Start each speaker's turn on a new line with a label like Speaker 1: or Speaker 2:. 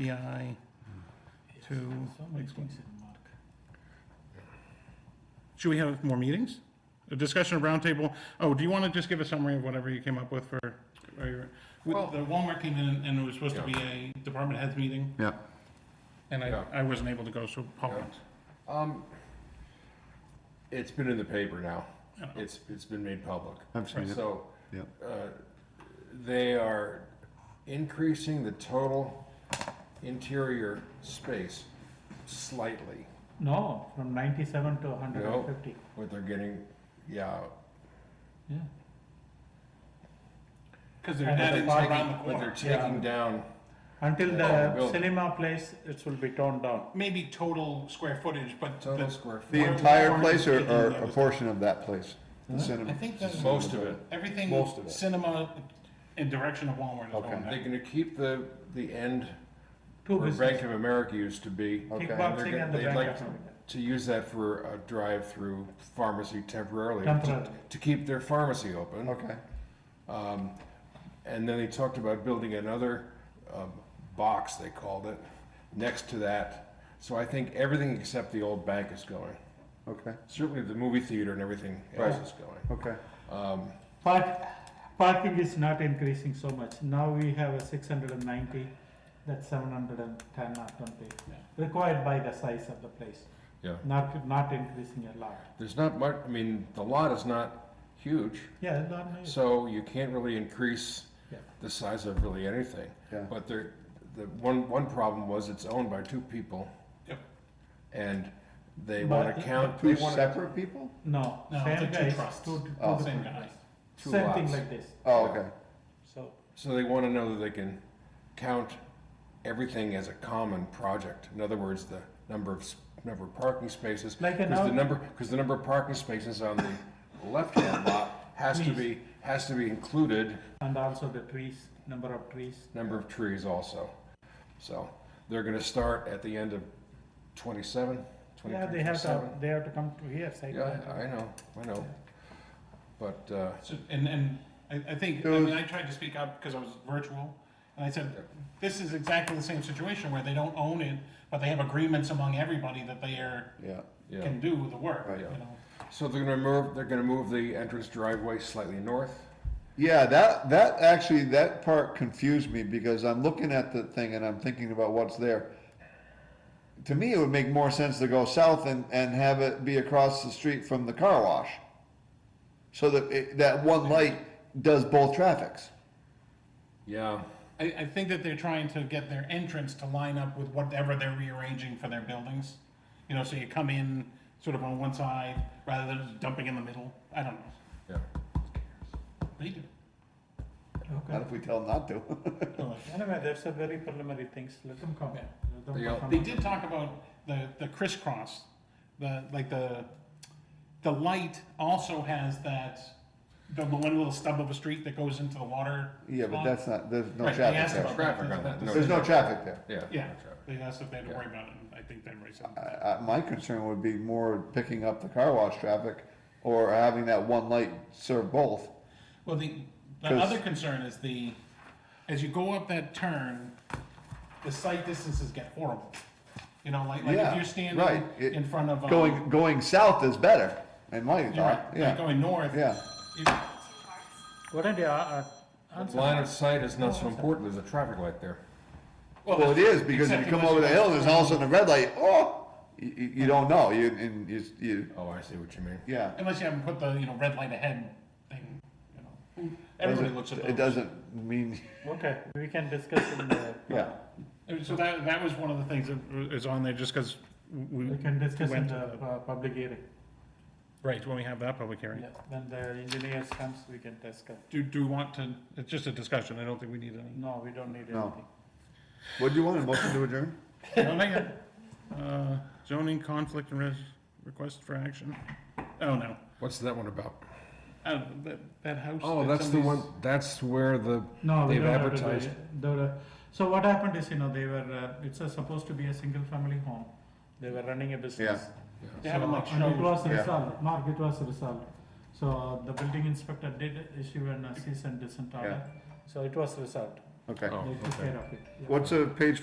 Speaker 1: SBI to, should we have more meetings? A discussion of roundtable, oh, do you want to just give a summary of whatever you came up with for, or your- with-
Speaker 2: Well-
Speaker 1: the Walmart came in and it was supposed to be a department heads meeting,
Speaker 3: Yeah,
Speaker 1: and I,
Speaker 2: Yeah.
Speaker 1: I wasn't able to go, so Paul went.
Speaker 2: Um, it's been in the paper now.
Speaker 1: Yeah.
Speaker 2: It's, it's been made public.
Speaker 3: I've seen it,
Speaker 2: So,
Speaker 3: yeah.
Speaker 2: uh, they are increasing the total interior space slightly.
Speaker 4: No, from ninety-seven to hundred
Speaker 2: No.
Speaker 4: and fifty,
Speaker 2: What they're getting, yeah.
Speaker 4: yeah.
Speaker 1: Because
Speaker 4: And
Speaker 2: what
Speaker 4: that
Speaker 2: they're
Speaker 4: is far
Speaker 2: taking-
Speaker 1: around the
Speaker 2: What they're
Speaker 1: corner.
Speaker 2: taking down,
Speaker 4: Until
Speaker 2: Oh,
Speaker 4: the
Speaker 2: building.
Speaker 4: cinema place, it will be torn down.
Speaker 1: Maybe total square footage, but
Speaker 2: total
Speaker 1: the-
Speaker 2: square
Speaker 3: The
Speaker 2: foot,
Speaker 1: Where-
Speaker 3: entire
Speaker 1: where
Speaker 3: place
Speaker 1: is
Speaker 3: or,
Speaker 1: it in
Speaker 3: or
Speaker 1: there?
Speaker 3: a portion of that place? The cinema-
Speaker 1: I think that's-
Speaker 2: most of it.
Speaker 1: everything,
Speaker 3: Most of it.
Speaker 1: cinema in direction of Walmart is
Speaker 3: Okay.
Speaker 1: going
Speaker 2: They're
Speaker 1: there.
Speaker 2: gonna keep the, the end
Speaker 4: Two
Speaker 2: where Bank
Speaker 4: businesses,
Speaker 2: of America used to be.
Speaker 3: Okay.
Speaker 2: They're
Speaker 4: kickboxing
Speaker 2: gonna-
Speaker 4: and the
Speaker 2: they'd
Speaker 4: bank
Speaker 2: like
Speaker 4: account.
Speaker 2: to use that for a drive-through pharmacy temporarily. to-
Speaker 4: Temporarily.
Speaker 2: To keep their pharmacy open.
Speaker 3: Okay,
Speaker 2: Um, and then they talked about building another, um, box, they called it, next to that. So I think everything except the old bank is going.
Speaker 3: okay,
Speaker 2: Certainly the movie theater and everything else
Speaker 3: Right.
Speaker 2: is going.
Speaker 3: okay.
Speaker 2: Um,
Speaker 4: Park, parking is not increasing so much. Now we have a six hundred and ninety, that's seven hundred and ten or twenty, required by the size of the place,
Speaker 2: yeah,
Speaker 4: not, not increasing a lot.
Speaker 2: there's not much, I mean, the lot is not huge,
Speaker 4: Yeah, not new.
Speaker 2: so you can't really increase
Speaker 4: Yeah.
Speaker 2: the size of really anything.
Speaker 3: Yeah.
Speaker 2: But there, the one, one problem was it's owned by two people.
Speaker 1: Yep.
Speaker 2: And they
Speaker 4: But
Speaker 2: wanna count, they
Speaker 3: Two
Speaker 2: wanna,
Speaker 3: separate people?
Speaker 4: No,
Speaker 1: No, they're
Speaker 4: same
Speaker 1: two
Speaker 4: guys,
Speaker 1: trusts.
Speaker 4: two, two
Speaker 3: Oh.
Speaker 1: Same
Speaker 4: different
Speaker 1: guy.
Speaker 4: guys.
Speaker 2: Two
Speaker 4: Same thing
Speaker 2: lots.
Speaker 4: like this,
Speaker 3: Oh, okay,
Speaker 4: so.
Speaker 2: so they wanna know that they can count everything as a common project. In other words, the number of, s- number of parking spaces.
Speaker 4: Like an
Speaker 2: Cause the
Speaker 4: out-
Speaker 2: number, cause the number of parking spaces on the left-hand lot has to
Speaker 4: Please.
Speaker 2: be, has to be included
Speaker 4: And also the trees, number of trees.
Speaker 2: number of trees also. So they're gonna start at the end of twenty-seven,
Speaker 4: Yeah,
Speaker 2: twenty-three,
Speaker 4: they have to,
Speaker 2: twenty-seven.
Speaker 4: they have to come to here, site.
Speaker 2: Yeah,
Speaker 4: plan.
Speaker 2: I I know, I know. But, uh,
Speaker 1: So, and, and I, I think, I
Speaker 3: Those-
Speaker 1: mean, I tried to speak up because I was virtual, and I said, this is exactly the same situation where they don't own it, but they have agreements among everybody that they are,
Speaker 3: yeah,
Speaker 2: yeah,
Speaker 1: can do the work,
Speaker 3: Right.
Speaker 1: you know?
Speaker 2: so they're gonna move, they're gonna move the entrance driveway slightly north.
Speaker 3: yeah, that, that, actually, that part confused me, because I'm looking at the thing and I'm thinking about what's there. To me, it would make more sense to go south and, and have it be across the street from the car wash. So that, it- that one light does both traffics.
Speaker 2: Yeah,
Speaker 1: I, I think that they're trying to get their entrance to line up with whatever they're rearranging for their buildings. You know, so you come in sort of on one side, rather than just dumping in the middle, I don't know,
Speaker 2: yeah.
Speaker 1: they do.
Speaker 3: Not
Speaker 4: Okay.
Speaker 3: if we tell them not to.
Speaker 1: Well,
Speaker 4: Anyway, that's a very preliminary things, let them come.
Speaker 1: Yeah.
Speaker 4: Let them
Speaker 2: They all-
Speaker 4: come.
Speaker 1: They did talk about the, the crisscross, the, like the, the light also has that, the one little stub of a street that goes into the water.
Speaker 3: Yeah, but
Speaker 1: spot.
Speaker 3: that's not, there's no
Speaker 1: Right, they
Speaker 3: traffic
Speaker 1: asked
Speaker 3: there.
Speaker 1: about
Speaker 2: Traffic on that,
Speaker 3: There's no traffic there.
Speaker 2: Yeah.
Speaker 1: Yeah,
Speaker 2: traffic.
Speaker 1: they asked if they had to worry about it, and I think they raised it.
Speaker 3: I, I, my concern would be more picking up the car wash traffic or having that one light serve both.
Speaker 1: Well, the, the
Speaker 3: 'Cause-
Speaker 1: other concern is the, as you go up that turn, the sight distances get horrible. You know, like, like if
Speaker 3: Yeah,
Speaker 1: you're standing
Speaker 3: right. It-
Speaker 1: in front of, um,
Speaker 3: Going, going south is better, in my
Speaker 1: you're right,
Speaker 3: thought,
Speaker 1: like
Speaker 3: yeah,
Speaker 1: going north.
Speaker 3: yeah.
Speaker 1: you-
Speaker 4: What are they, uh, uh, answer?
Speaker 2: Line of sight is not so important, there's a traffic light there.
Speaker 3: Well, it is, because if
Speaker 1: except
Speaker 3: you come
Speaker 1: unless
Speaker 3: over the
Speaker 1: go
Speaker 3: hill, there's
Speaker 1: straight.
Speaker 3: all of a sudden a red light, oh, you, you you don't know, you, and you, you,
Speaker 2: Oh, I see what you mean.
Speaker 3: yeah.
Speaker 1: Unless you haven't put the, you know, red light ahead thing, you
Speaker 2: Mm.
Speaker 1: know, everybody
Speaker 3: Doesn't-
Speaker 1: looks at those.
Speaker 3: It doesn't mean,
Speaker 4: Okay, we can discuss in the.
Speaker 3: yeah,
Speaker 1: And So that, that was one of the things that is on there, just because we.
Speaker 4: We can discuss in
Speaker 1: went
Speaker 4: the,
Speaker 1: to
Speaker 4: uh, public hearing.
Speaker 1: the- Right, when we have that public hearing.
Speaker 4: Yeah, when the engineers comes, we can discuss.
Speaker 1: Do, do we want to, it's just a discussion, I don't think we need any.
Speaker 4: No, we don't need
Speaker 3: No.
Speaker 4: anything.
Speaker 3: what do you want, a motion to adjourn?
Speaker 1: No, hang on. Uh, Zoning conflict and res, request for action? Oh, no.
Speaker 2: What's that one about?
Speaker 1: Oh, that, that house.
Speaker 2: Oh,
Speaker 1: that
Speaker 2: that's the one,
Speaker 1: somebody's-
Speaker 2: that's where the,
Speaker 4: No, we
Speaker 2: They've
Speaker 4: don't have to do
Speaker 2: advertised.
Speaker 4: it. The- the- so what happened is, you know, they were, uh, it's a- supposed to be a single family home. They were running a business.
Speaker 1: They haven't like
Speaker 4: So, and It
Speaker 1: shown.
Speaker 4: was
Speaker 3: Yeah.
Speaker 4: resolved, Mark, it was resolved. So the building inspector did issue an cease and desist order, so it was resolved.
Speaker 3: Okay,
Speaker 2: Oh,
Speaker 4: They took
Speaker 2: okay.
Speaker 4: care of it. Yeah.
Speaker 3: what's a page